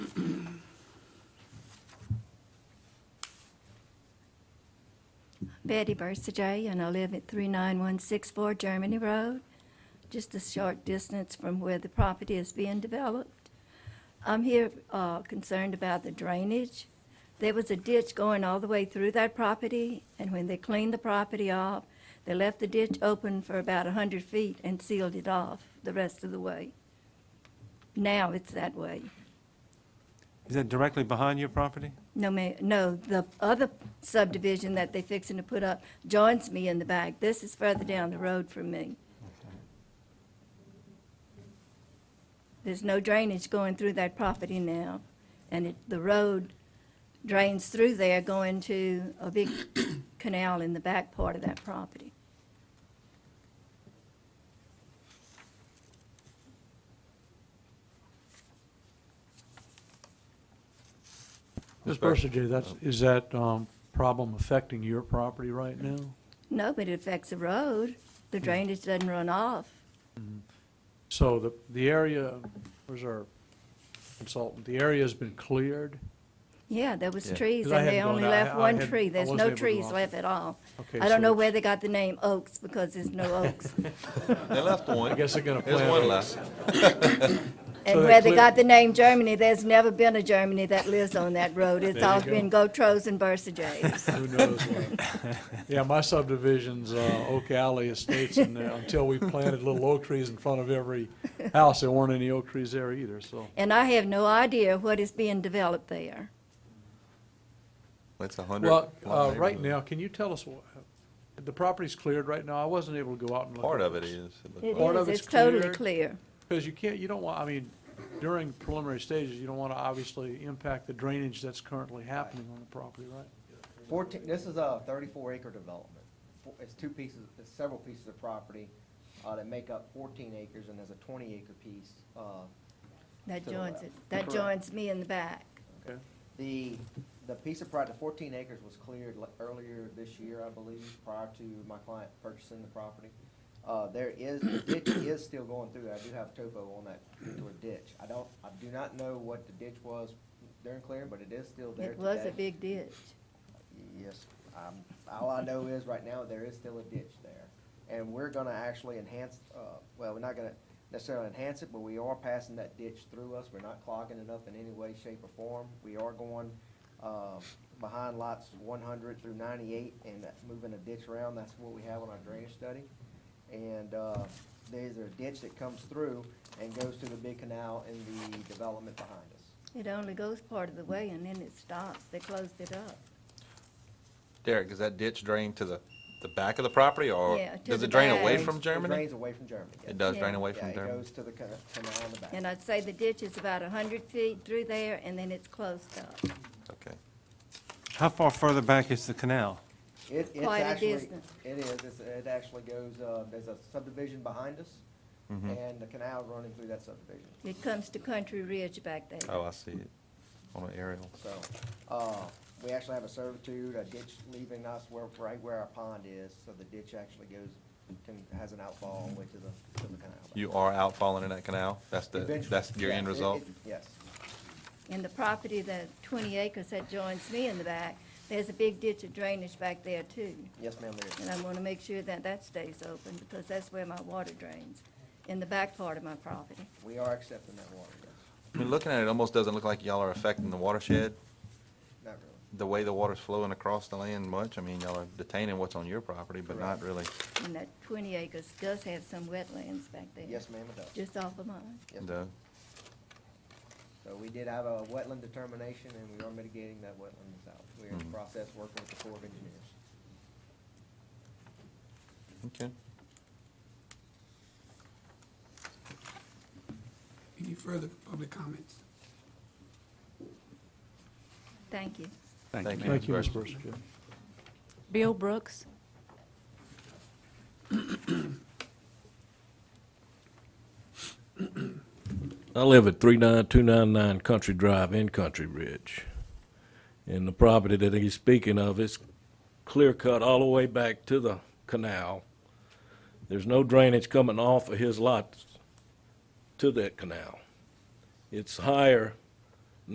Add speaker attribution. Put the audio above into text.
Speaker 1: Betty Bursaday, and I live at 39164 Germany Road, just a short distance from where the property is being developed. I'm here uh, concerned about the drainage. There was a ditch going all the way through that property, and when they cleaned the property off, they left the ditch open for about 100 feet and sealed it off the rest of the way. Now it's that way.
Speaker 2: Is that directly behind your property?
Speaker 1: No, ma, no, the other subdivision that they fixing to put up joins me in the back. This is further down the road from me. There's no drainage going through that property now, and it, the road drains through there going to a big canal in the back part of that property.
Speaker 3: Ms. Bursager, that's, is that um, problem affecting your property right now?
Speaker 1: No, but it affects the road. The drainage doesn't run off.
Speaker 3: So the, the area, where's our consultant, the area's been cleared?
Speaker 1: Yeah, there was
Speaker 2: Yeah.
Speaker 1: trees,
Speaker 3: 'Cause I
Speaker 1: and they
Speaker 3: hadn't
Speaker 1: only
Speaker 3: gone out.
Speaker 1: left
Speaker 3: I- I
Speaker 1: one
Speaker 3: hadn't-
Speaker 1: tree.
Speaker 3: I
Speaker 1: There's
Speaker 3: wasn't
Speaker 1: no
Speaker 3: able to go
Speaker 1: trees
Speaker 3: out.
Speaker 1: left at all.
Speaker 3: Okay,
Speaker 1: I don't know
Speaker 3: so-
Speaker 1: where they got the name Oaks, because there's no oaks.
Speaker 4: They left one.
Speaker 3: I guess they're gonna
Speaker 4: There's
Speaker 3: plant
Speaker 4: one
Speaker 3: it.
Speaker 4: left.
Speaker 1: And
Speaker 3: they
Speaker 1: where they
Speaker 3: clear-
Speaker 1: got the name Germany, there's never been a Germany that lives on that road. It's
Speaker 3: There you
Speaker 1: all
Speaker 3: go.
Speaker 1: been Gotros and Bursajays.
Speaker 3: Who knows what? Yeah, my subdivision's uh, Oak Alley Estates, and uh, until we planted little oak trees in front of every house, there weren't any oak trees there either, so.
Speaker 1: And I have no idea what is being developed there.
Speaker 4: That's a hundred.
Speaker 3: Well, uh, right now, can you tell us, wh- the property's cleared right now? I wasn't able to go out and look.
Speaker 4: Part
Speaker 3: at
Speaker 4: of it
Speaker 3: this.
Speaker 4: is. it looked
Speaker 1: It
Speaker 4: like.
Speaker 3: Part
Speaker 1: is,
Speaker 3: of it's
Speaker 1: it's totally
Speaker 3: cleared.
Speaker 1: clear.
Speaker 3: Because you can't, you don't want, I mean, during preliminary stages, you don't want to obviously impact the drainage that's currently happening on the property, right?
Speaker 5: 14, this is a 34-acre development. Four- It's two pieces, it's several pieces of property uh, that make up 14 acres, and there's a 20-acre piece. uh,
Speaker 1: That
Speaker 5: To the
Speaker 1: joins
Speaker 5: left.
Speaker 1: it, that
Speaker 3: Correct.
Speaker 1: joins me in the back.
Speaker 3: Okay.
Speaker 5: The, the piece of property, the 14 acres was cleared le- earlier this year, I believe, prior to my client purchasing the property. Uh, There is, the ditch is still going through there. I do have topo on that particular ditch. I don't, I do not know what the ditch was during clearing, but it is still there
Speaker 1: It
Speaker 5: today.
Speaker 1: was a big ditch.
Speaker 5: Yes, um, all I know is right now there is still a ditch there. And we're gonna actually enhance, uh, well, we're not gonna necessarily enhance it, but we are passing that ditch through us. We're not clogging it up in any way, shape, or form. We are going, uh, behind lots one hundred through ninety-eight and moving a ditch around. That's what we have on our drainage study. And, uh, there's a ditch that comes through and goes to the big canal in the development behind us.
Speaker 1: It only goes part of the way and then it stops. They closed it up.
Speaker 4: Derek, is that ditch drain to the, the back of the property or
Speaker 1: Yeah, to
Speaker 4: does
Speaker 1: the
Speaker 4: it drain away
Speaker 1: back.
Speaker 4: from
Speaker 5: It
Speaker 4: Germany?
Speaker 5: drains away from Germany. yes.
Speaker 4: It does
Speaker 1: Yeah.
Speaker 4: drain away
Speaker 5: Yeah,
Speaker 4: from
Speaker 5: it
Speaker 4: Germany.
Speaker 5: goes to the canal on the back.
Speaker 1: And I'd say the ditch is about 100 feet through there and then it's closed up.
Speaker 4: Okay.
Speaker 2: How far further back is the canal?
Speaker 5: It, it's
Speaker 1: Quite a
Speaker 5: actually, it
Speaker 1: distance.
Speaker 5: is, it's, it actually goes, uh, there's a subdivision behind us,
Speaker 4: Mm-hmm.
Speaker 5: and the canal running through that subdivision,
Speaker 1: It comes to Country Ridge back there.
Speaker 4: Oh, I see it on an aerial.
Speaker 5: so, uh, we actually have a servitude, a ditch leaving us where, right where our pond is, so the ditch actually goes, can, has an outfall way to the, to the canal.
Speaker 4: You are outfalling in that canal? That's the,
Speaker 5: Eventually,
Speaker 4: that's your
Speaker 5: yeah,
Speaker 4: end
Speaker 5: it-
Speaker 4: result?
Speaker 5: it- Yes,
Speaker 1: In the property, the 20 acres that joins me in the back, there's a big ditch of drainage back there too.
Speaker 5: yes, ma'am, there is.
Speaker 1: And I want to make sure that that stays open because that's where my water drains, in the back part of my property.
Speaker 5: We are accepting that water, yes,
Speaker 4: I mean, looking at it, it almost doesn't look like y'all are affecting the watershed,
Speaker 5: not really,
Speaker 4: the way the water's flowing across the land much. I mean, y'all are detaining what's on your property, but not
Speaker 5: Correct.
Speaker 4: really.
Speaker 1: And that 20 acres does have some wetlands back there.
Speaker 5: yes, ma'am, it does,
Speaker 1: Just off of mine.
Speaker 5: yes, ma'am.
Speaker 4: the-
Speaker 5: So we did have a wetland determination, and we are mitigating that wetlands out. We're in the process working with the Corps of Engineers.
Speaker 4: Okay.
Speaker 6: Any further public comments?
Speaker 1: Thank you.
Speaker 4: Thank you.
Speaker 3: Thank you, Ms.
Speaker 4: Ms.
Speaker 3: Bursager.
Speaker 7: Bill Brooks.
Speaker 8: I live at 39299 Country Drive in Country Ridge. And the property that he's speaking of is clear cut all the way back to the canal. There's no drainage coming off of his lot to that canal. It's higher